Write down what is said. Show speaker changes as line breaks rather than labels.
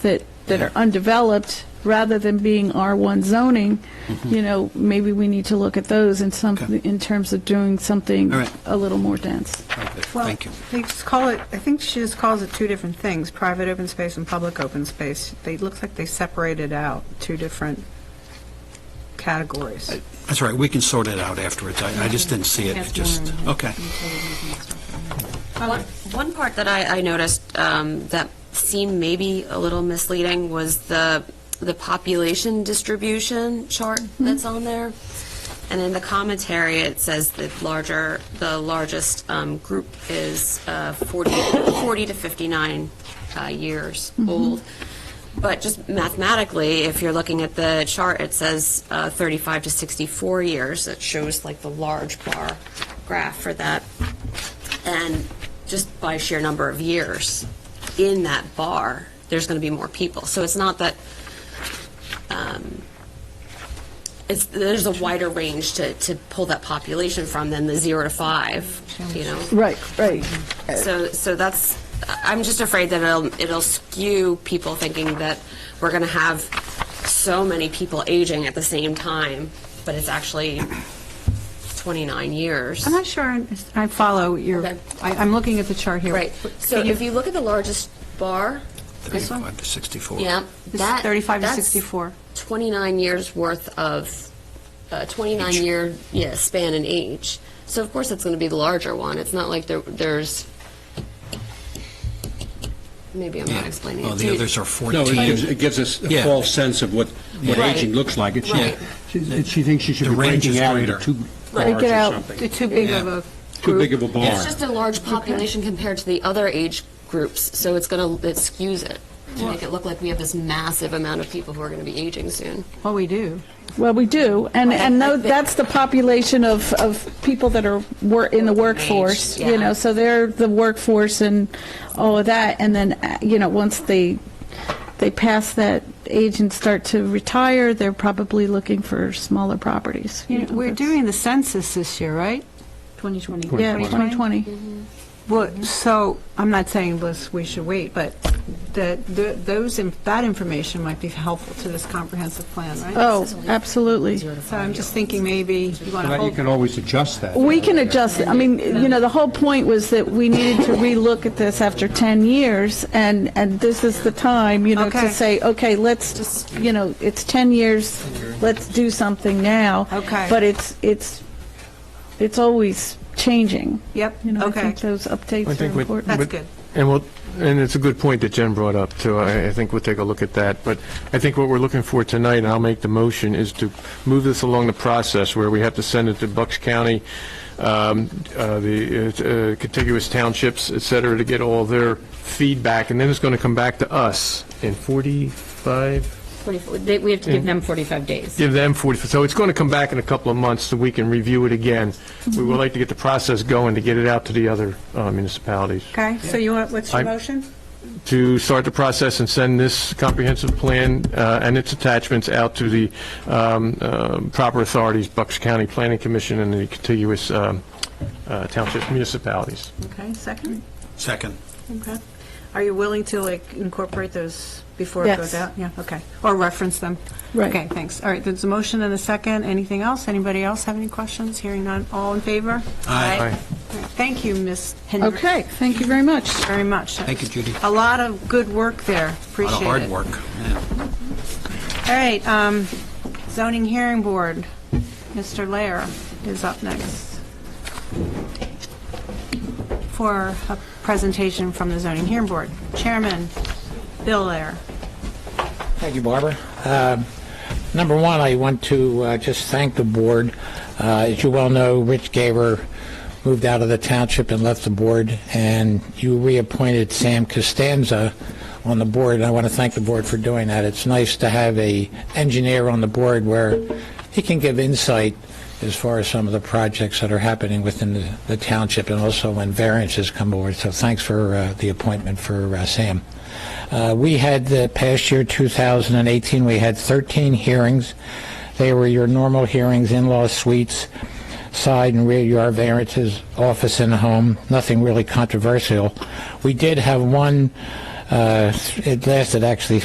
that, that are undeveloped, rather than being R1 zoning, you know, maybe we need to look at those in some,
Mm-hmm. Okay.
in terms of doing something
All right.
a little more dense.
Okay,
Well,
Thank you.
They just call it, I think she just calls it two different things, private open space and public open space. They, it looks like they separated out two different categories.
That's all right, we can sort it out afterwards. I I just didn't see it, It just, okay.
Uh, One one part that I, I noticed um, that seemed maybe a little misleading was the, the population distribution chart that's on there. And in the commentary, it says that larger, the largest um, group is uh, 40, 40 to 59 uh, years old. But just mathematically, if you're looking at the chart, it says uh, 35 to 64 years. It shows like the large bar graph for that. And just by sheer number of years in that bar, there's going to be more people. So it's not that, um, it's, there's a wider range to, to pull that population from than the zero to five, you know?
Right, right.
So, so that's, I'm just afraid that it'll, it'll skew people thinking that we're going to have so many people aging at the same time, but it's actually 29 years.
I'm not sure I- I follow your,
Okay.
I- I'm looking at the chart here.
Right. So
Can you-
if you look at the largest bar,
35 to 64.
yeah,
This is
that
35 to
that's
64.
29 years worth of uh, 29 year yeah span in age. So of course it's going to be the larger one. It's not like there there's maybe I'm not
Yeah.
explaining
Well,
it.
the
too-
others are
No, it
14.
gives, it gives us a
Yeah.
false sense of what, what
Right.
aging looks like. It should-
Right.
She she thinks she should
The
be
range
breaking
is
out into
greater.
two
Break
bars
it out.
or
They're
something.
Too big
Yeah.
of a
Too big
group.
of a bar.
It's just a large population compared to the other age groups, so it's going to it skews it to make it look like we have this massive amount of people who are going to be aging soon.
Well, we do.
Well, we do, and, and tho- that's the population of, of people that are, wor- in the workforce, you
yeah.
know, so they're the workforce and all of that, and then, uh, you know, once they, they pass that age and start to retire, they're probably looking for smaller properties. you
You know,
know,
We're
that's-
doing the census this year, right?
2020.
Yeah, 2020.
Well, so, I'm not saying, Liz, we should wait, but that, th- those, in- that information might be helpful to this comprehensive plan, right?
Oh, absolutely.
So I'm just thinking maybe you want to
But You
hold
can always adjust that.
We can adjust, it. I mean, you know, the whole point was that we needed to relook at this after 10 years, and, and this is the time, you know, to
Okay.
say, okay, let's just, you know, it's 10 years, let's do something now.
Okay.
But it's, it's, it's always changing.
Yep,
You know, I
okay.
think those updates
I
are
think we-
important.
That's
but-
good.
And we'll, and it's a good point that Jen brought up, too. I, I think we'll take a look at that. But I think what we're looking for tonight, and I'll make the motion, is to move this along the process where we have to send it to Bucks County, um, uh, the uh, contiguous townships, et cetera, to get all their feedback, and then it's going to come back to us in 45,
24 They- We have to give them 45 days.
give them 40, so it's going to come back in a couple of months so we can review it again. We would like to get the process going to get it out to the other uh, municipalities.
Okay, so you want, what's your
I'm-
motion?
to start the process and send this comprehensive plan uh, and its attachments out to the um, um, proper authorities, Bucks County Planning Commission and the contiguous um, uh, township municipalities.
Okay, second?
Second.
Okay. Are you willing to like incorporate those before it
Yes.
goes out? Yeah, okay. Or reference them?
Right.
Okay, thanks. All right, there's a motion and a second. Anything else? Anybody else have any questions? Hearing none, all in favor?
Aye.
Aye.
All right, Thank you, Ms. Hendrick.
Okay, thank you very much.
Very much.
Thank you, Judy.
A lot of good work there.
A lot
Appreciate
of
it.
hard work. Yeah.
All right, um, zoning hearing board. Mr. Lair is up next for a presentation from the zoning hearing board. Chairman Bill Lair.
Thank you, Barbara. Um, Number one, I want to uh, just thank the board. Uh, As you well know, Rich Gaver moved out of the township and left the board, and you reappointed Sam Costanza on the board, and I want to thank the board for doing that. It's nice to have a engineer on the board where he can give insight as far as some of the projects that are happening within the- the township, and also when variances come over. So thanks for uh, the appointment for uh, Sam. Uh, We had, the past year, 2018, we had 13 hearings. They were your normal hearings, in-law suites, side and rear yard variances, office and home, nothing really controversial. We did have one, uh, it lasted actually